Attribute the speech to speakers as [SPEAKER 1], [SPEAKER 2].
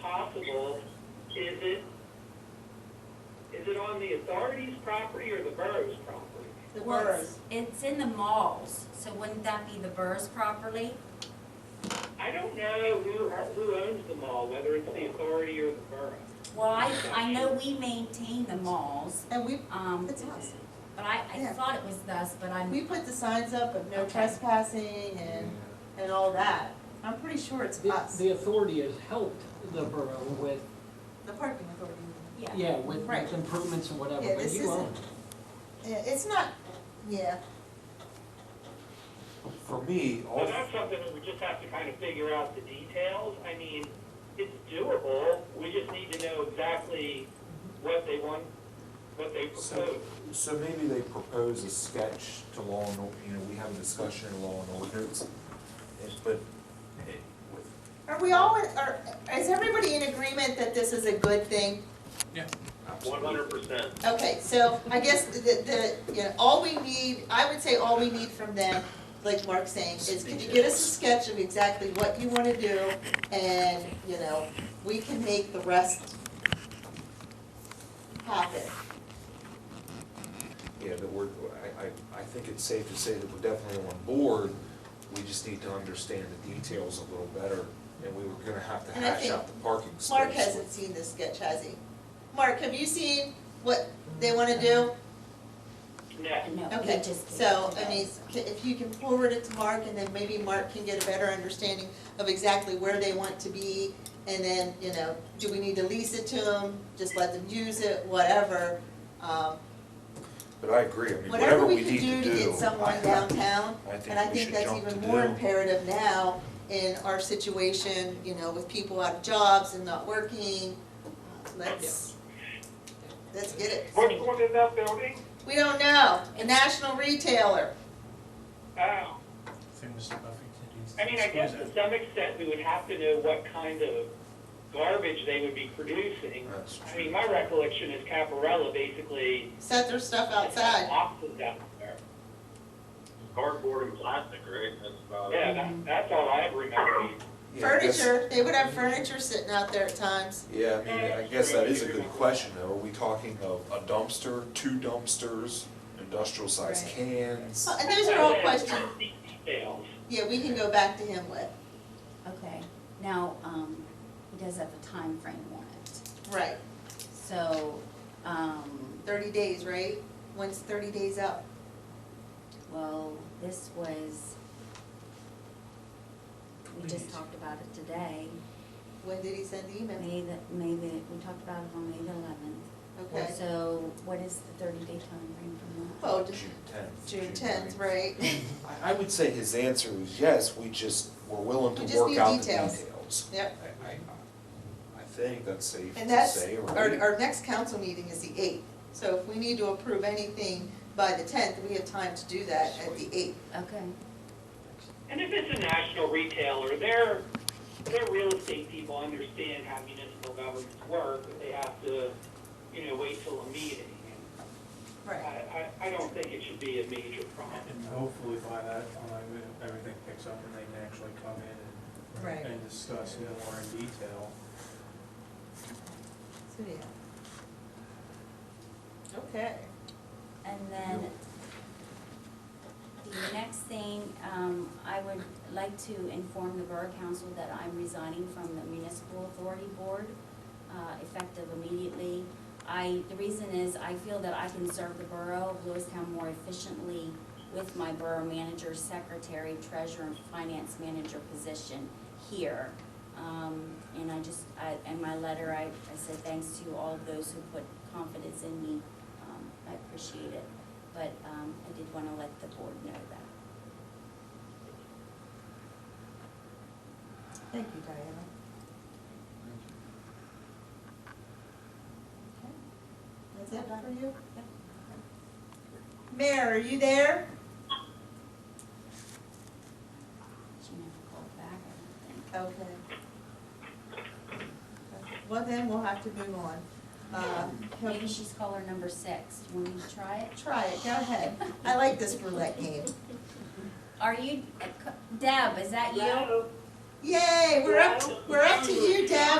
[SPEAKER 1] possible, is it, is it on the authority's property or the borough's property?
[SPEAKER 2] The
[SPEAKER 3] Well,
[SPEAKER 2] boroughs.
[SPEAKER 3] it's- It's in the malls, so wouldn't that be the boroughs properly?
[SPEAKER 1] I don't know who, who owns the mall, whether it's the authority or the borough.
[SPEAKER 3] Well, I, I know we maintain the malls,
[SPEAKER 2] And we,
[SPEAKER 3] um,
[SPEAKER 2] it's us.
[SPEAKER 3] but I, I
[SPEAKER 2] Yeah.
[SPEAKER 3] thought it was thus, but
[SPEAKER 2] We
[SPEAKER 3] I'm,
[SPEAKER 2] put the signs up of no
[SPEAKER 3] Okay.
[SPEAKER 2] trespassing and, and all that. I'm pretty sure it's
[SPEAKER 4] The,
[SPEAKER 2] us,
[SPEAKER 4] the authority has helped the borough with,
[SPEAKER 2] the parking authority.
[SPEAKER 3] yeah.
[SPEAKER 4] yeah, with
[SPEAKER 2] Right.
[SPEAKER 4] with improvements and whatever,
[SPEAKER 2] Yeah,
[SPEAKER 4] but
[SPEAKER 2] this
[SPEAKER 4] you
[SPEAKER 2] isn't-
[SPEAKER 4] own it.
[SPEAKER 2] Yeah, it's not, yeah,
[SPEAKER 5] For me,
[SPEAKER 1] So
[SPEAKER 5] all,
[SPEAKER 1] that's something that we just have to kind of figure out the details. I mean, it's doable, we just need to know exactly what they want, what they propose.
[SPEAKER 5] so, so maybe they propose a sketch to law and, or- you know, we have a discussion in law and ordinance. and- But it, with,
[SPEAKER 2] are
[SPEAKER 4] Oh.
[SPEAKER 2] we all, are, is everybody in agreement that this is a good thing?
[SPEAKER 1] One hundred percent.
[SPEAKER 2] Okay, so I guess the, the, you know, all we need, I would say all we need from them, like Mark's saying, is can you get us a sketch of exactly what you wanna do? And, you know, we can make the rest happen.
[SPEAKER 5] yeah, that we're, I, I, I think it's safe to say that we're definitely on board. We just need to understand the details a little better, and we were gonna have to
[SPEAKER 2] And I
[SPEAKER 5] hash
[SPEAKER 2] think
[SPEAKER 5] out the parking space.
[SPEAKER 2] Mark hasn't seen this sketch, has he? Mark, have you seen what they wanna do?
[SPEAKER 1] Next.
[SPEAKER 3] No, we
[SPEAKER 2] Okay,
[SPEAKER 3] just-
[SPEAKER 2] so, I mean, c- if you can forward it to Mark, and then maybe Mark can get a better understanding of exactly where they want to be, and then, you know, do we need to lease it to them, just let them use it, whatever. Um,
[SPEAKER 5] But I agree, I mean,
[SPEAKER 2] Whatever we can
[SPEAKER 5] need to
[SPEAKER 2] do
[SPEAKER 5] do.
[SPEAKER 2] to get someone
[SPEAKER 5] I-
[SPEAKER 2] downtown,
[SPEAKER 5] I
[SPEAKER 2] and I
[SPEAKER 5] think
[SPEAKER 2] think
[SPEAKER 5] we should
[SPEAKER 2] that's
[SPEAKER 5] jump to
[SPEAKER 2] even
[SPEAKER 5] do.
[SPEAKER 2] more imperative now in our situation, you know, with people out of jobs and not working. Let's, let's get it.
[SPEAKER 1] Which one is that building?
[SPEAKER 2] We don't know, a national retailer.
[SPEAKER 1] Oh.
[SPEAKER 6] Think Mr. Buffington needs to
[SPEAKER 1] I mean, I guess to
[SPEAKER 6] disclose
[SPEAKER 1] some extent, we would have to know what kind of garbage they would be producing.
[SPEAKER 5] That's
[SPEAKER 1] I
[SPEAKER 5] true.
[SPEAKER 1] mean, my recollection is Caparella basically.
[SPEAKER 2] set their stuff
[SPEAKER 1] had
[SPEAKER 2] outside.
[SPEAKER 1] Boxes out there.
[SPEAKER 7] cardboard and plastic, right? That's about it.
[SPEAKER 1] Yeah, that, that's all I remember.
[SPEAKER 5] Yeah, I guess-
[SPEAKER 2] Furniture, they would have furniture sitting out there at times.
[SPEAKER 5] Yeah, I mean, I guess that is a good question, though. Are we talking of a dumpster, two dumpsters, industrial size
[SPEAKER 2] Right.
[SPEAKER 5] cans?
[SPEAKER 2] Well, And those are all questions,
[SPEAKER 1] Details.
[SPEAKER 2] yeah, we can go back to him with,
[SPEAKER 3] Okay, now, um, he does have a time frame on it,
[SPEAKER 2] right,
[SPEAKER 3] so, um,
[SPEAKER 2] thirty days, right? When's thirty days up?
[SPEAKER 3] well, this was, we just talked about it today.
[SPEAKER 2] When did he send the email?
[SPEAKER 3] May the, May the, we talked about it on May the eleventh.
[SPEAKER 2] Okay,
[SPEAKER 3] So what is the thirty day time frame from that?
[SPEAKER 2] well,
[SPEAKER 5] June
[SPEAKER 2] just
[SPEAKER 5] tenth.
[SPEAKER 2] June tenth, right?
[SPEAKER 5] I, I would say his answer is yes, we just, we're willing
[SPEAKER 2] We
[SPEAKER 5] to
[SPEAKER 2] just
[SPEAKER 5] work
[SPEAKER 2] need
[SPEAKER 5] out the
[SPEAKER 2] details.
[SPEAKER 5] details.
[SPEAKER 2] Yep,
[SPEAKER 5] I, I, I think that's safe
[SPEAKER 2] and
[SPEAKER 5] to
[SPEAKER 2] that's,
[SPEAKER 5] say,
[SPEAKER 2] our,
[SPEAKER 5] right?
[SPEAKER 2] our next council meeting is the eighth, so if we need to approve anything by the tenth, we have time to do that at the eighth.
[SPEAKER 3] Okay,
[SPEAKER 1] And if it's a national retailer, their, their real estate people understand how municipal governments work, but they have to, you know, wait till a meeting. I, I, I don't think it should be a major problem.
[SPEAKER 6] it. And hopefully by that time, everything picks up and they can actually come in
[SPEAKER 2] Right.
[SPEAKER 6] and, and discuss it more in detail.
[SPEAKER 2] So, yeah. Okay.
[SPEAKER 3] and then the next thing, um, I would like to inform the Borough Council that I'm resigning from the Municipal Authority Board, uh, effective immediately. I, the reason is I feel that I can serve the Borough of Lewistown more efficiently with my Borough Manager, Secretary, Treasurer, and Finance Manager position here. Um, and I just, I, in my letter, I, I said thanks to all of those who put confidence in me. Um, I appreciate it, but, um, I did wanna let the board know that.
[SPEAKER 2] Thank you, Diana. Okay. That's it for you? Mayor, are you there?
[SPEAKER 3] She never called back, I don't think.
[SPEAKER 2] Okay. Well, then we'll have to move on. Uh, can
[SPEAKER 3] Maybe
[SPEAKER 2] we-
[SPEAKER 3] she's caller number six. You want me to try it?
[SPEAKER 2] Try it, go ahead. I like this roulette game.
[SPEAKER 3] Are you, Deb, is that you?
[SPEAKER 2] Yay, we're up, we're up to you, Deb.